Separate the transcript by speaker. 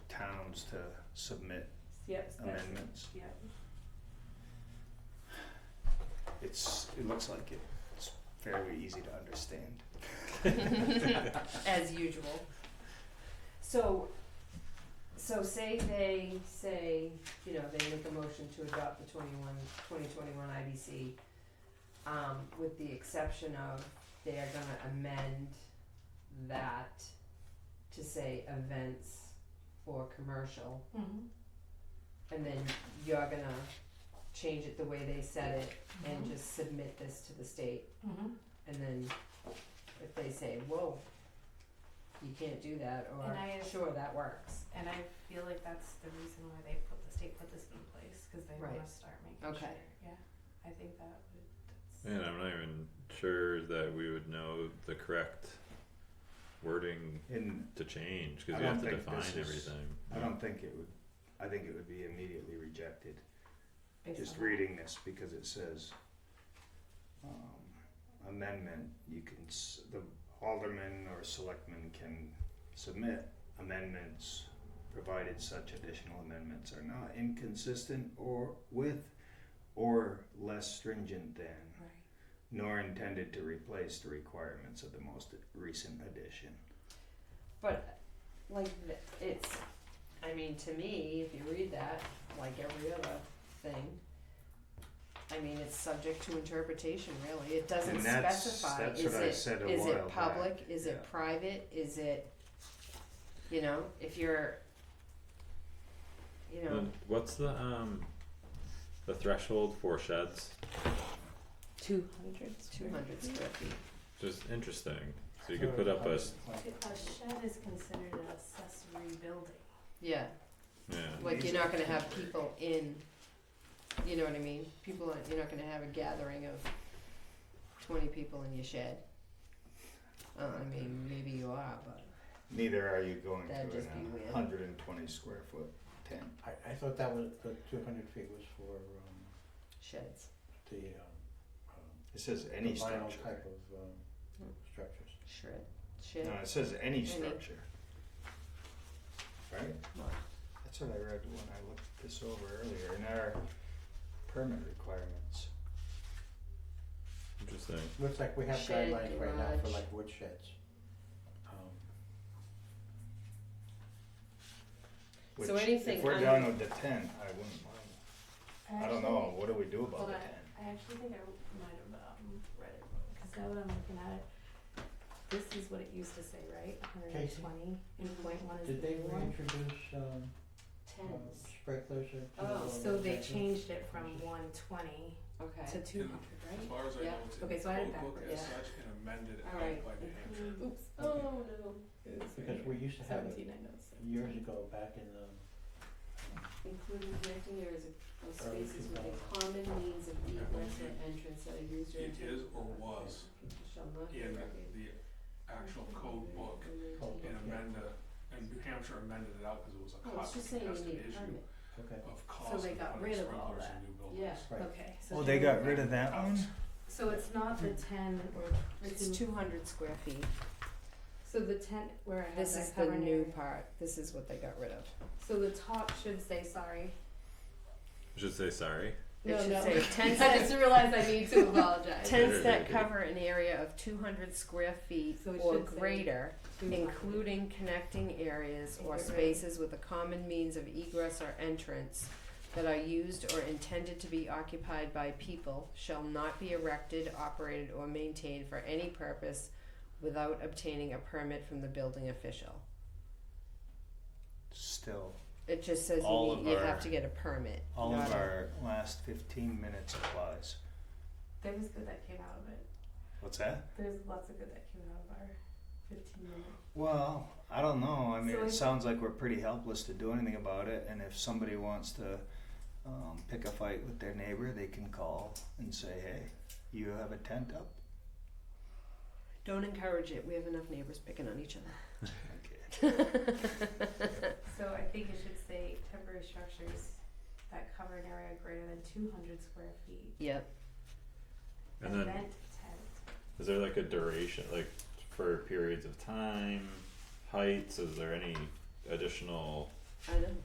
Speaker 1: towns to submit
Speaker 2: Yep, that's,
Speaker 1: amendments.
Speaker 2: yep.
Speaker 1: It's, it looks like it. it's fairly easy to understand.
Speaker 2: As usual. So, so say they say, you know, they make a motion to adopt the 21 2021 IBC. Um, with the exception of they are gonna amend that to say events or commercial.
Speaker 3: Mm-hmm.
Speaker 2: And then you're gonna change it the way they said it
Speaker 3: Mm-hmm.
Speaker 2: and just submit this to the state. And then if they say, whoa, you can't do that, or
Speaker 3: And I-
Speaker 2: sure, that works.
Speaker 3: And I feel like that's the reason why they put, the state put this in place, cause they wanna
Speaker 2: Right.
Speaker 3: start making sure,
Speaker 2: Okay.
Speaker 3: yeah, I think that would, that's.
Speaker 4: And I'm not even sure that we would know the correct wording
Speaker 1: And
Speaker 4: to change, cause
Speaker 1: I
Speaker 4: we have
Speaker 1: don't
Speaker 4: to
Speaker 1: think
Speaker 4: define
Speaker 1: this is-
Speaker 4: everything.
Speaker 1: I don't think it would, I think it would be immediately rejected,
Speaker 3: based
Speaker 1: just
Speaker 3: on that.
Speaker 1: reading this, because it says, um, amendment, you can, s- the alderman or selectman can submit amendments, provided such additional amendments are not inconsistent or with, or less stringent than,
Speaker 3: Right,
Speaker 1: nor intended to replace the requirements of the most recent edition.
Speaker 2: But like th- it's, I mean, to me, if you read that, like every other thing, I mean, it's subject to interpretation. Really, it doesn't
Speaker 1: And that's-
Speaker 2: specify.
Speaker 1: that's
Speaker 2: is
Speaker 1: what I
Speaker 2: it
Speaker 1: said a
Speaker 2: is
Speaker 1: while
Speaker 2: it public?
Speaker 1: back,
Speaker 2: Is
Speaker 1: yeah.
Speaker 2: it private? Is it, you know, if you're, you know,
Speaker 1: Hmm.
Speaker 4: And What's the, um, the threshold for sheds?
Speaker 5: Two hundred.
Speaker 2: two hundred square feet.
Speaker 4: Just interesting, so you could put up a, s-
Speaker 3: If a shed is considered an accessory building,
Speaker 2: Yeah.
Speaker 4: yeah,
Speaker 2: Like you're not gonna have people in, you know what I mean? People, aren't- you're not gonna have a gathering of twenty people in your shed. Uh, I mean, maybe you are, but
Speaker 1: Neither are you going to an
Speaker 2: That'd just be weird.
Speaker 1: hundred and twenty square foot tent.
Speaker 6: I, I thought that was, the two hundred feet was for, um,
Speaker 2: sheds,
Speaker 6: the, um, um,
Speaker 1: It says
Speaker 6: the
Speaker 1: any
Speaker 6: vinyl
Speaker 1: structure.
Speaker 6: type of,
Speaker 3: Hmm.
Speaker 6: um, structures.
Speaker 2: shred,
Speaker 1: No,
Speaker 2: shed.
Speaker 1: it says any structure. Right?
Speaker 2: What?
Speaker 1: That's what I read when I looked this over earlier in our permit requirements.
Speaker 4: interesting,
Speaker 6: Looks like we have
Speaker 2: Shed,
Speaker 6: guidelines right now for
Speaker 2: garage.
Speaker 6: like wood sheds. Um,
Speaker 1: Which,
Speaker 2: So anything
Speaker 1: If we're
Speaker 2: under-
Speaker 1: down with the tent, I wouldn't mind.
Speaker 3: I
Speaker 1: I don't
Speaker 3: actually
Speaker 1: know,
Speaker 3: think-
Speaker 1: what do we do about
Speaker 3: Hold
Speaker 1: the
Speaker 3: on,
Speaker 1: tent?
Speaker 3: I actually think I might have um read it wrong, cause now that I'm looking at it, this is what it used to say, right, hundred and
Speaker 6: Casey?
Speaker 3: twenty, and point one is the
Speaker 6: Did they
Speaker 3: new one.
Speaker 6: reintroduce, um, um, sprinklers or? to the
Speaker 2: Oh.
Speaker 6: lower
Speaker 3: So they
Speaker 6: section?
Speaker 3: changed it from one twenty
Speaker 2: Okay.
Speaker 3: to two hundred,
Speaker 7: As
Speaker 3: right?
Speaker 7: far as I
Speaker 2: Yeah.
Speaker 7: know, it's in
Speaker 3: Okay,
Speaker 7: the
Speaker 3: so I did
Speaker 7: code book
Speaker 2: backwards.
Speaker 7: as
Speaker 2: Yeah. Mm-hmm.
Speaker 7: such and amended at
Speaker 2: Alright.
Speaker 7: night by New Hampshire.
Speaker 3: Oops,
Speaker 6: Okay.
Speaker 3: oh no. It's
Speaker 6: Because we used to have it
Speaker 3: Seventeen, I know, so.
Speaker 6: years ago, back in, um,
Speaker 2: Including connecting areas of, of
Speaker 6: Sorry,
Speaker 2: spaces with
Speaker 6: keep
Speaker 2: a common means of egress or entrance that are used or.
Speaker 7: It is or
Speaker 2: intended for
Speaker 7: was
Speaker 2: people Shall not.
Speaker 7: in
Speaker 2: congregate
Speaker 7: the actual code book
Speaker 2: or maintain-
Speaker 6: Code book.
Speaker 7: and amenda, and New Hampshire amended it out because it was a
Speaker 2: Oh, it's just saying you need
Speaker 7: cost-contested
Speaker 2: a
Speaker 7: issue
Speaker 2: permit.
Speaker 6: okay.
Speaker 7: of cost
Speaker 3: they
Speaker 7: of
Speaker 3: got
Speaker 7: putting
Speaker 3: rid of all
Speaker 7: sprinklers
Speaker 3: that.
Speaker 7: in new buildings.
Speaker 2: Yeah.
Speaker 6: Right.
Speaker 3: Okay, so.
Speaker 1: Oh, they got rid of that
Speaker 7: Out.
Speaker 1: one?
Speaker 3: So it's not the ten or
Speaker 2: It's
Speaker 3: two,
Speaker 2: two hundred square feet.
Speaker 3: so the ten where I have
Speaker 2: This is
Speaker 3: that
Speaker 2: the
Speaker 3: cover
Speaker 2: new
Speaker 3: new.
Speaker 2: part. This is what they got rid of.
Speaker 3: so the top should say sorry.
Speaker 4: I should say sorry,
Speaker 2: It should
Speaker 3: No, no.
Speaker 2: say ten
Speaker 3: I just
Speaker 2: cents.
Speaker 3: realized I need to apologize.
Speaker 2: Tents that cover an area of two hundred square feet
Speaker 3: So it
Speaker 2: or
Speaker 3: should say-
Speaker 2: greater,
Speaker 3: Two
Speaker 2: including connecting areas or
Speaker 3: Right.
Speaker 2: spaces with a common means of egress or entrance that are used or intended to be occupied by people, shall not be erected, operated, or maintained for any purpose without obtaining a permit from the building official.
Speaker 1: Still,
Speaker 2: It just says
Speaker 1: All
Speaker 2: you,
Speaker 1: of
Speaker 2: need, you
Speaker 1: our-
Speaker 2: have to get a permit.
Speaker 1: all of
Speaker 2: not a-
Speaker 1: our last fifteen minutes applies.
Speaker 3: There was good that came out of it.
Speaker 1: What's that?
Speaker 3: There's lots of good that came out of our fifteen minutes.
Speaker 1: Well, I don't know. I mean,
Speaker 3: So
Speaker 1: it
Speaker 3: if-
Speaker 1: sounds like we're pretty helpless to do anything about it. And if somebody wants to um, pick a fight with their neighbor, they can call and say, hey, you have a tent up?
Speaker 2: Don't encourage it. We have enough neighbors picking on each other.
Speaker 1: Okay.
Speaker 3: So I think it should say temporary structures that cover an area greater than two hundred square feet.
Speaker 2: Yep.
Speaker 4: and then,
Speaker 3: Event tent.
Speaker 4: is there like a duration, like for periods of time, heights, is there any additional